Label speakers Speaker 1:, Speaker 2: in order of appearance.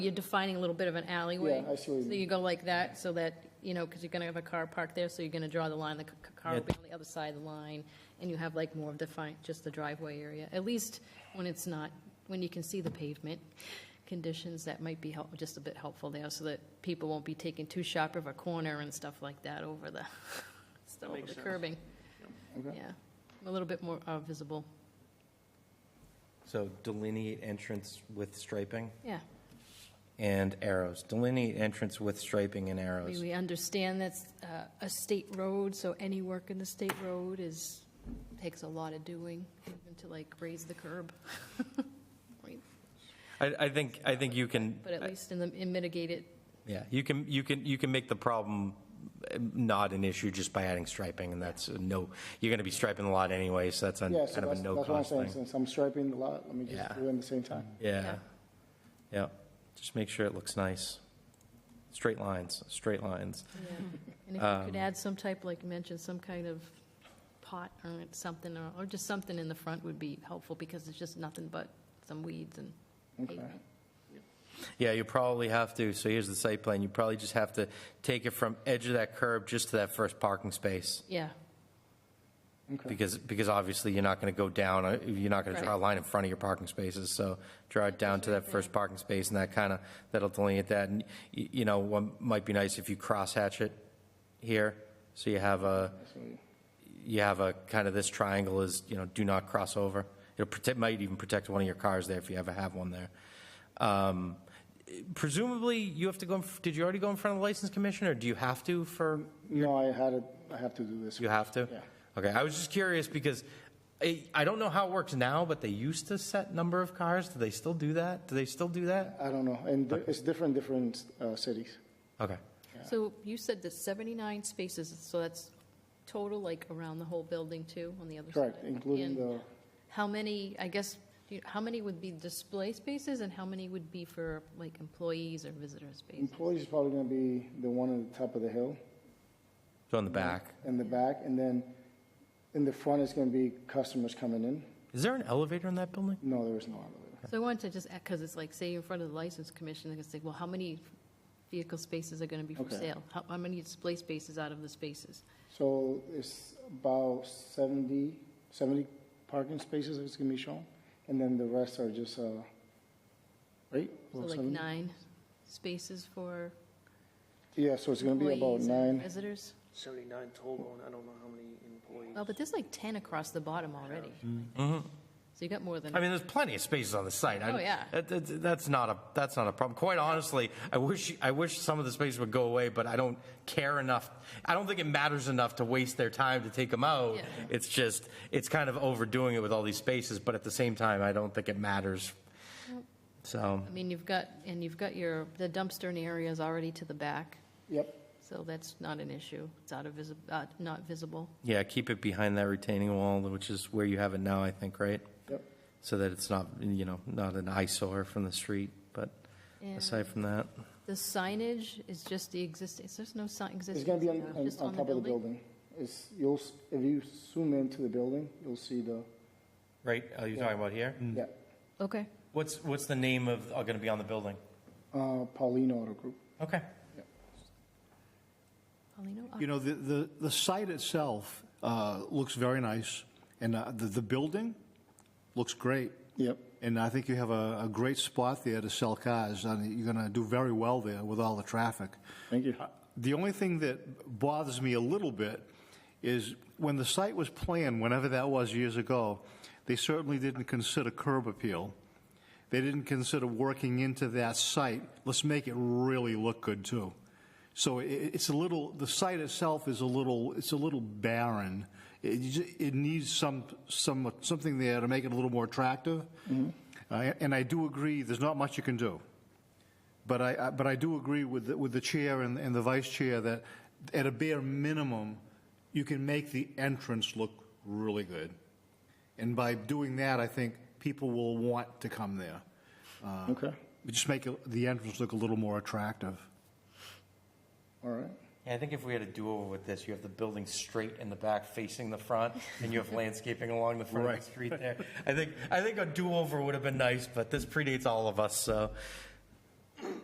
Speaker 1: You're defining a little bit of an alleyway.
Speaker 2: Yeah, I see what you
Speaker 1: So
Speaker 2: mean.
Speaker 1: you go like that, so that, you know, because you're going to have a car parked there, so you're going to draw the line, the c- c- car will be on the other side of the line, and you have like more of defined, just the driveway area, at least when it's not, when you can see the pavement conditions, that might be help, just a bit helpful there, so that people won't be taking too sharp of a corner and stuff like that over the, still over the curbing.
Speaker 2: Okay.
Speaker 1: Yeah, a little bit more uh, visible,
Speaker 3: So delineate entrance with striping
Speaker 1: yeah.
Speaker 3: and arrows. Delineate entrance with striping and
Speaker 1: I mean,
Speaker 3: arrows.
Speaker 1: we understand that's uh, a state road, so any work in the state road is, takes a lot of doing, even to like raise the curb. Right,
Speaker 3: I, I think, I think you can,
Speaker 1: But at least in the, in mitigate it,
Speaker 3: yeah, you can, you can, you can make the problem eh, not an issue just by adding striping, and that's a no, you're going to be striping the lot anyway, so that's a
Speaker 2: Yeah, so
Speaker 3: kind of a
Speaker 2: that's, that's what I'm
Speaker 3: no-cost
Speaker 2: saying,
Speaker 3: thing.
Speaker 2: since I'm striping the lot, let me
Speaker 3: Yeah.
Speaker 2: just do it at the same time.
Speaker 3: Yeah, yeah, just make sure it looks nice. Straight lines, straight lines.
Speaker 1: and if
Speaker 2: Um,
Speaker 1: you could add some type, like you mentioned, some kind of pot or something, or, or just something in the front would be helpful, because it's just nothing but some weeds and
Speaker 2: Okay.
Speaker 1: pavement.
Speaker 3: Yeah, you probably have to, so here's the site plan, you probably just have to take it from edge of that curb just to that first parking space.
Speaker 1: Yeah,
Speaker 2: Okay,
Speaker 3: Because, because obviously you're not going to go down, uh, you're not going to draw a line in front of your parking spaces, so draw it down to that first parking space and that kind of, that'll delineate that. And, y- you know, what might be nice if you crosshatch it here, so you have a,
Speaker 2: so you-
Speaker 3: you have a, kind of this triangle is, you know, do not cross over. It'll protect, might even protect one of your cars there if you ever have one there. Um, Presumably, you have to go, in f- did you already go in front of the license commission, or do you have to for
Speaker 2: No, I had it, I have to do this.
Speaker 3: you have to?
Speaker 2: Yeah.
Speaker 3: Okay, I was just curious because I, I don't know how it works now, but they used to set number of cars. Do they still do that? Do they still do that?
Speaker 2: I don't know, and there- it's different, different uh, cities.
Speaker 3: Okay.
Speaker 1: so you said there's 79 spaces, so that's total, like, around the whole building too, on the other side?
Speaker 2: Correct, including
Speaker 1: And-
Speaker 2: the,
Speaker 1: How many, I guess, do you- how many would be display spaces and how many would be for like employees or visitor space?
Speaker 2: employees is probably gonna be the one on the top of the hill,
Speaker 3: So on the back.
Speaker 2: in the back, and then in the front is gonna be customers coming in.
Speaker 3: Is there an elevator in that building?
Speaker 2: No, there is no elevator.
Speaker 1: So I wanted to just, because it's like, say, in front of the license commission, they're going to say, well, how many vehicle spaces are going to be for
Speaker 2: Okay.
Speaker 1: sale? How, how many display spaces out of the spaces?
Speaker 2: So it's about 70, 70 parking spaces that's gonna be shown, and then the rest are just, uh, right?
Speaker 1: So
Speaker 2: About
Speaker 1: like
Speaker 2: 70?
Speaker 1: nine spaces for
Speaker 2: Yeah, so it's gonna be about
Speaker 1: employees and
Speaker 2: nine,
Speaker 1: visitors?
Speaker 4: 79 total, and I don't know how many employees.
Speaker 1: Well, but there's like 10 across the bottom already. So you got more than.
Speaker 3: Mm-hmm. I mean, there's plenty of spaces on the site. I-
Speaker 1: Oh, yeah.
Speaker 3: that- that- that's not a, that's not a problem. Quite honestly, I wish, I wish some of the spaces would go away, but I don't care enough. I don't think it matters enough to waste their time to take them out.
Speaker 1: Yeah.
Speaker 3: It's just, it's kind of overdoing it with all these spaces, but at the same time, I don't think it matters. So,
Speaker 1: I mean, you've got, and you've got your, the dumpster and areas already to the back.
Speaker 2: yep.
Speaker 1: So that's not an issue. It's out of visi, uh, not visible.
Speaker 3: yeah, keep it behind that retaining wall, which is where you have it now, I think, right?
Speaker 2: Yep.
Speaker 3: So that it's not, you know, not an eyesore from the street, but
Speaker 1: And
Speaker 3: aside from that,
Speaker 1: the signage is just the existing, there's no sign existing.
Speaker 2: It's gonna be on,
Speaker 1: sign,
Speaker 2: on,
Speaker 1: just
Speaker 2: on top of the building. It's, you'll, s- if you zoom into the building, you'll see the,
Speaker 3: right, are you talking about here?
Speaker 2: yeah,
Speaker 1: Okay.
Speaker 3: What's, what's the name of, going to be on the building?
Speaker 2: uh, Paulino Auto Group.
Speaker 3: Okay.
Speaker 1: Paulino, uh,
Speaker 5: You know, the, the, the site itself uh, looks very nice, and uh, the, the building looks great.
Speaker 2: Yep.
Speaker 5: And I think you have a, a great spot there to sell cars, and you're going to do very well there with all the traffic.
Speaker 2: Thank you.
Speaker 5: The only thing that bothers me a little bit is when the site was planned, whenever that was years ago, they certainly didn't consider curb appeal. They didn't consider working into that site. Let's make it really look good too. So i- i- it's a little, the site itself is a little, it's a little barren. It, you ju- it needs some, some, something there to make it a little more attractive. I- and I do agree, there's not much you can do. But I, I- but I do agree with, the- with the chair and, and the vice chair that at a bare minimum, you can make the entrance look really good. And by doing that, I think people will want to come there.
Speaker 2: Okay,
Speaker 5: Just make it- the entrance look a little more attractive.
Speaker 2: all right.
Speaker 3: Yeah, I think if we had a do-over with this, you have the building straight in the back facing the front, and you have landscaping along the front of
Speaker 5: Right.
Speaker 3: the street there. I think, I think a do-over would have been nice, but this predates all of us, so